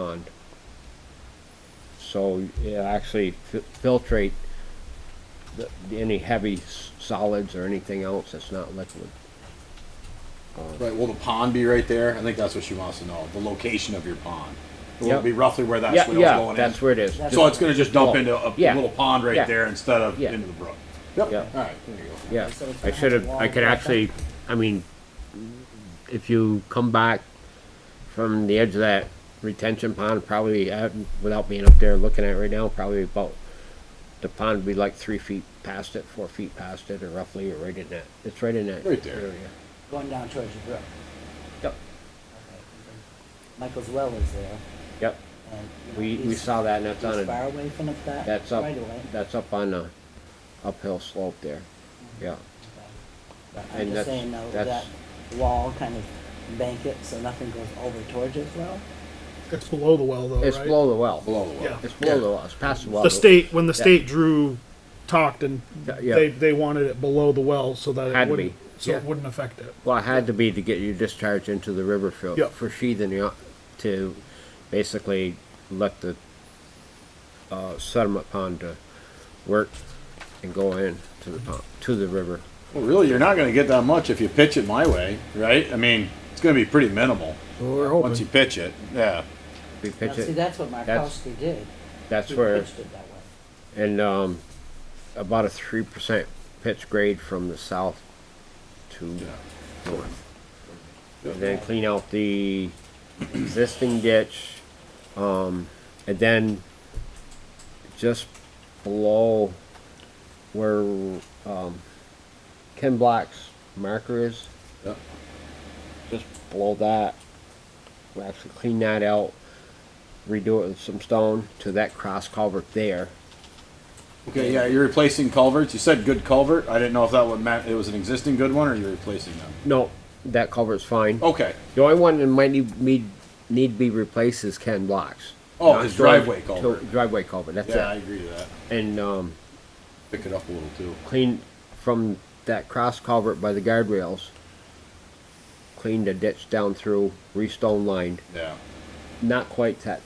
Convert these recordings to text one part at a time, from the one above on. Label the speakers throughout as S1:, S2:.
S1: pond. So it'll actually fi- filtrate the, any heavy s- solids or anything else that's not liquid.
S2: Right, will the pond be right there? I think that's what she wants to know, the location of your pond. It
S1: Yep.
S2: will be roughly where that
S1: Yeah,
S2: swale's
S1: yeah,
S2: going in.
S1: that's where it is.
S3: That's
S2: So it's gonna just dump into a
S1: Yeah.
S2: little pond
S1: Yeah.
S2: right there instead of
S1: Yeah.
S2: into the brook.
S1: Yeah.
S2: Yep, alright, there you go.
S1: Yeah,
S3: So it's
S1: I
S3: gonna
S1: should
S3: have
S1: have,
S3: a
S1: I could
S3: wall
S1: actually, I mean, if you come back from the edge of that retention pond, probably, uh, without being up there looking at it right now, probably about, the pond would be like three feet past it, four feet past it, or roughly, or right in that, it's right in that.
S2: Right there.
S1: area.
S3: Going down towards the brook.
S1: Yep,
S3: Okay. Michael's well is there.
S1: yep,
S3: and, you know,
S1: we, we
S3: he's-
S1: saw that, and that's
S3: he's
S1: on
S3: far
S1: a,
S3: away from the- that
S1: that's up,
S3: right away.
S1: that's up on a uphill slope there, yeah.
S3: But
S1: and
S3: I'm
S1: that's-
S3: just saying though, that
S1: that's-
S3: wall kind of bank it so nothing goes over towards it well.
S4: It's below the well, though,
S1: It's
S4: right?
S1: below the well,
S2: Below the well.
S4: Yeah.
S1: it's below the well, it's past the well.
S4: The state, when the state drew, talked, and
S1: Yeah, yeah.
S4: they, they wanted it below the well so that
S1: Had
S4: it
S1: to
S4: wouldn't,
S1: be,
S4: so it
S1: yeah.
S4: wouldn't affect it.
S1: Well, it had to be to get you discharged into the river for,
S4: Yep.
S1: for sheathing you, to basically let the uh, sediment pond to work and go in to the pond, to the river.
S2: Well, really, you're not gonna get that much if you pitch it my way, right? I mean, it's gonna be pretty minimal,
S4: So we're
S2: once you
S4: hoping.
S2: pitch it, yeah.
S1: We
S3: Now,
S1: pitch
S3: see,
S1: it,
S3: that's what Markowski did.
S1: that's
S3: He
S1: where,
S3: pitched it that way.
S1: and um, about a three percent pitch grade from the south to north. And then clean out the existing ditch, um, and then just below where, um, Ken Black's marker is,
S2: Yep.
S1: just below that, we actually clean that out, redo it with some stone to that cross culvert there.
S2: Okay, yeah, you're replacing culverts, you said good culvert, I didn't know if that would meant it was an existing good one or you're replacing them.
S1: No, that culvert's fine.
S2: Okay,
S1: The only one that might need, need, need to be replaced is Ken Black's.
S2: Oh,
S1: Not
S2: his
S1: George-
S2: driveway culvert.
S1: George- Driveway culvert, that's
S2: yeah, I
S1: it.
S2: agree with that,
S1: And, um,
S2: pick it up a little too.
S1: clean from that cross culvert by the guardrails, cleaned a ditch down through, re-stone lined,
S2: Yeah,
S1: not quite that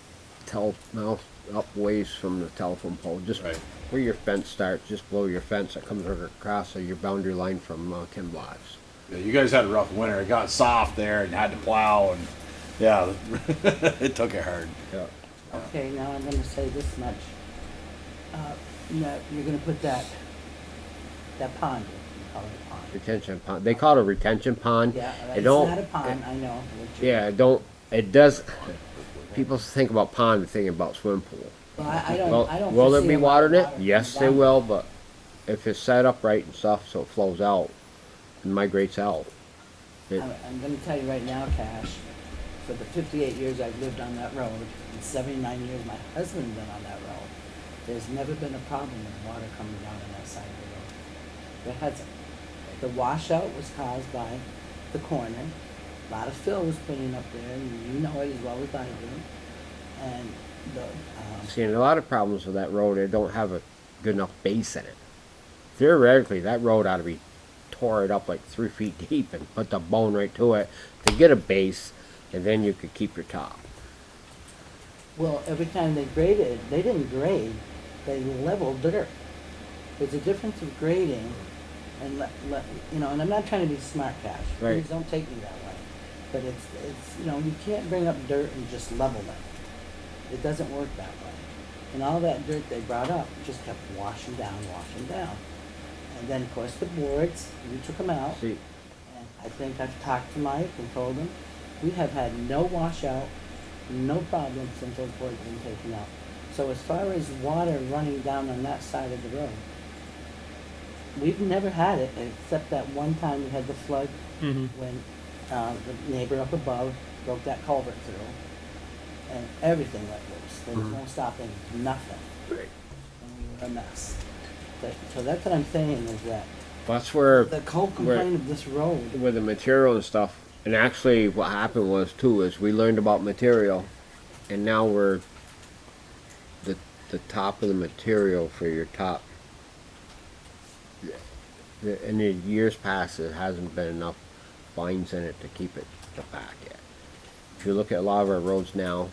S1: tel, mouth up ways from the telephone pole, just
S2: Right.
S1: where your fence starts, just below your fence that comes across of your boundary line from, uh, Ken Black's.
S2: yeah. You guys had a rough winter. It got soft there and had to plow and yeah, it took it hard.
S1: Yeah.
S3: Okay, now I'm gonna say this much. Uh, no, you're gonna put that, that pond, you call it a pond.
S1: Retention pond, they call it a retention pond.
S3: Yeah,
S1: It
S3: it's
S1: don't-
S3: not a pond, I know. what you-
S1: Yeah, it don't, it does, people think about pond, they think about swim pool.
S3: Well, I, I
S1: Well,
S3: don't, I don't.
S1: will there
S3: foresee
S1: be
S3: a lot
S1: water in
S3: of
S1: it? Yes, they
S3: down
S1: will, but if it's set up right and stuff, so it flows out and migrates out. It-
S3: I'm, I'm gonna tell you right now, Cash, for the fifty-eight years I've lived on that road, and seventy-nine years my husband's been on that road, there's never been a problem with water coming down on that side of the road. There hasn't. The washout was caused by the corner, a lot of fill was putting up there, and you know it as well as I do. And the, um,
S1: Seeing a lot of problems with that road, it don't have a good enough base in it. Theoretically, that road ought to be tore it up like three feet deep and put the bone right to it to get a base, and then you could keep your top.
S3: well, every time they graded, they didn't grade, they leveled dirt. There's a difference of grading and let, let, you know, and I'm not trying to be smart cash.
S1: Right.
S3: Please don't take me that way. But it's, it's, you know, you can't bring up dirt and just level it. It doesn't work that way. And all that dirt they brought up just kept washing down, washing down. And then, of course, the boards, you took them out.
S1: See,
S3: And I think I've talked to Mike and told him, we have had no washout, no problems since those boards have been taken out. So as far as water running down on that side of the road, we've never had it, except that one time we had the flood
S4: Mhm.
S3: when, uh, the neighbor up above broke that culvert through. And everything went loose, there was no stopping, nothing. And we were a mess. But, so that's what I'm saying is that
S1: that's where.
S3: the whole complaint of this road
S1: with the material and stuff. And actually, what happened was too is we learned about material, and now we're the the top of the material for your top. The- In the years past, there hasn't been enough fines in it to keep it the back yet. If you look at a lot of our roads now,